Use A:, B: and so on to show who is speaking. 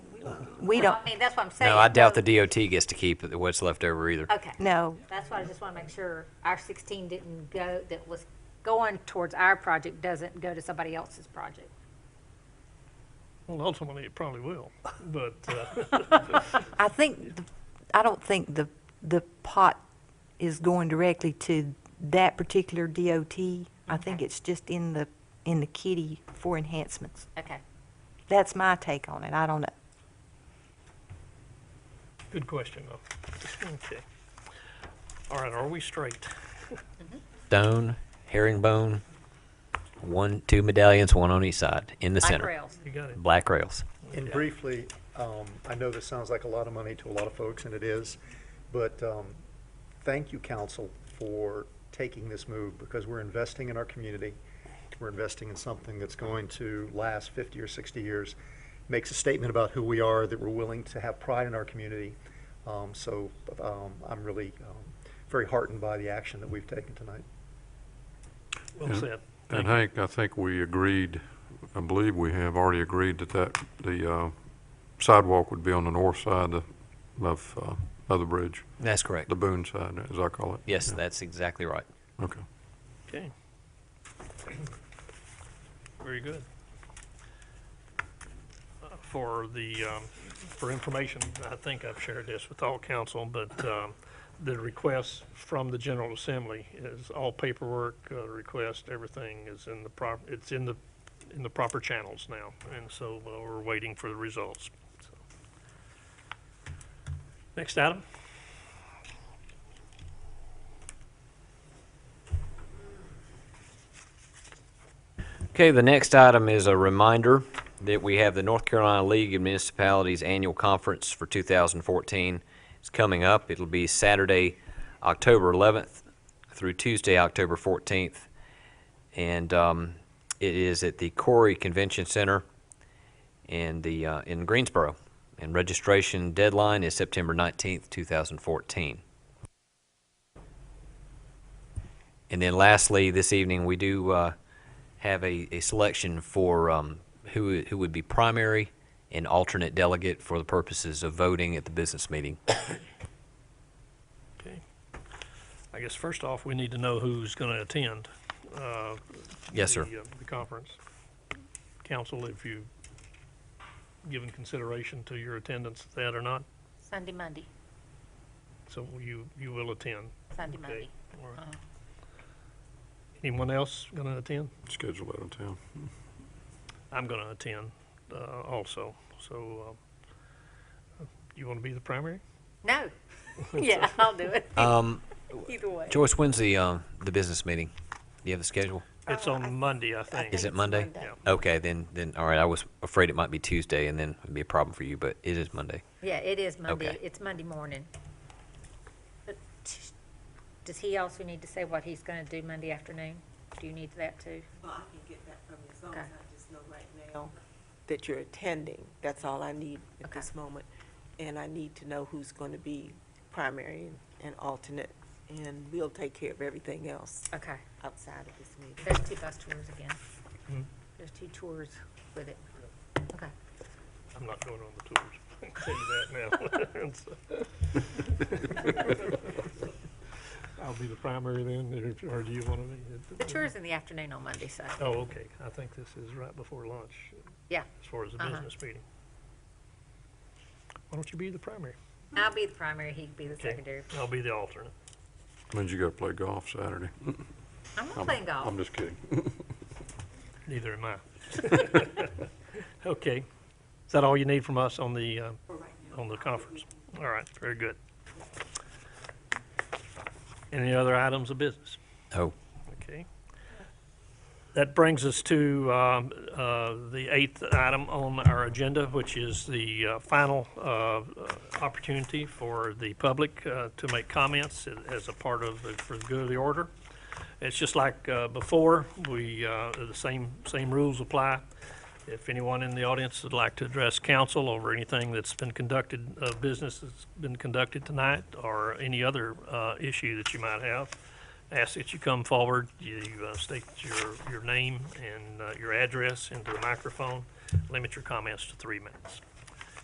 A: We don't,
B: I mean, that's what I'm saying.
C: No, I doubt the
B: So-
C: DOT gets to keep what's left over either.
B: Okay.
A: no,
B: That's why I just want to make sure our 16 didn't go, that was going towards our project doesn't go to somebody else's project.
D: Well, ultimately, it probably will, but, uh,
A: I think, the- I don't think the, the pot is going directly to that particular DOT. I think
B: Okay.
A: it's just in the, in the kitty for enhancements.
B: Okay.
A: That's my take on it. I don't know.
D: good question, though. Okay. All right, are we straight?
B: Mm-hmm.
C: Stone, herringbone, one, two medallions, one on each side, in the
B: Like
C: center.
B: rails.
D: You got it?
C: Black rails.
E: And briefly, um, I know this sounds like a lot of money to a lot of folks, and it is, but, um, thank you, council, for taking this move, because we're investing in our community. We're investing in something that's going to last fifty or sixty years, makes a statement about who we are, that we're willing to have pride in our community. Um, so, um, I'm really, um, very heartened by the action that we've taken tonight.
D: Well said.
F: And
D: Thank
F: Hank, I think we agreed, I believe we have already agreed that that, the uh, sidewalk would be on the north side of- of, uh, of the bridge,
C: That's correct.
F: the Boone side, as I call it.
C: Yes,
F: Yeah.
C: that's exactly right.
F: Okay.
D: Okay. Very good. Uh, For the, um, for information, I think I've shared this with all council, but um, the request from the General Assembly is all paperwork, uh, request, everything is in the prop, it's in the, in the proper channels now, and so uh, we're waiting for the results. so. Next item?
C: Okay, the next item is a reminder that we have the North Carolina League of Municipalities Annual Conference for 2014. It's coming up. It'll be Saturday, October 11th through Tuesday, October 14th. And um, it is at the Corey Convention Center in the, uh, in Greensboro. And registration deadline is September 19th, 2014. And then lastly, this evening, we do uh, have a, a selection for um, who, who would be primary and alternate delegate for the purposes of voting at the business meeting.
D: Okay. I guess first off, we need to know who's going to attend. uh,
C: Yes, sir.
D: the, uh, The conference. Council, if you given consideration to your attendance of that or not,
B: Sunday, Monday,
D: so you, you will attend.
B: Sunday,
D: Okay.
B: Monday. Uh-huh.
D: All right. Anyone else going to attend?
F: Schedule that in town.
D: I'm going to attend uh, also, so uh, you want to be the primary?
B: No. Yeah, I'll do it.
C: Um,
B: Either way.
C: Joyce, when's the, um, the business meeting? Do you have the schedule?
D: It's on Monday, Oh, I think.
C: Is it Monday?
D: Yeah.
C: Okay, then, then, all right, I was afraid it might be Tuesday and then it'd be a problem for you, but it is Monday.
B: Yeah, it is Monday.
C: Okay.
B: It's Monday morning. But t- Does he also need to say what he's going to do Monday afternoon? Do you need that too?
G: Well, I can get that from you, as long
B: Okay.
G: as I just know right now that you're attending. That's all I need at
B: Okay.
G: this moment. And I need to know who's going to be primary and- and alternate, and we'll take care of everything else
B: Okay.
G: outside of this meeting.
B: There's two bus tours again.
D: Hmm.
B: There's two tours with it. Okay.
D: I'm not going on the tours. I can tell you that now. So- I'll be the primary then, or or do you want to be?
B: The tour's in the afternoon on Monday, so.
D: Oh, okay. I think this is right before lunch,
B: Yeah,
D: as far as the
B: Uh-huh.
D: business meeting. Why don't you be the primary?
B: I'll be the primary, he can be the
D: Okay.
B: secondary.
D: I'll be the alternate.
F: Means you gotta play golf Saturday.
B: I'm not
F: I'm-
B: playing golf.
F: I'm just kidding.
D: Neither am I. Okay. Is that all you need from us on the, uh, on the conference? All right, very good. Any other items of business?
C: Oh,
D: Okay. That brings us to um, uh, the eighth item on our agenda, which is the uh, final uh, uh, opportunity for the public uh, to make comments as a part of, the- for the good of the order. It's just like uh, before, we, uh, the same, same rules apply. If anyone in the audience would like to address council over anything that's been conducted, uh, business that's been conducted tonight, or any other uh, issue that you might have, ask that you come forward, you uh, state your, your name and uh, your address into the microphone, limit your comments to three minutes.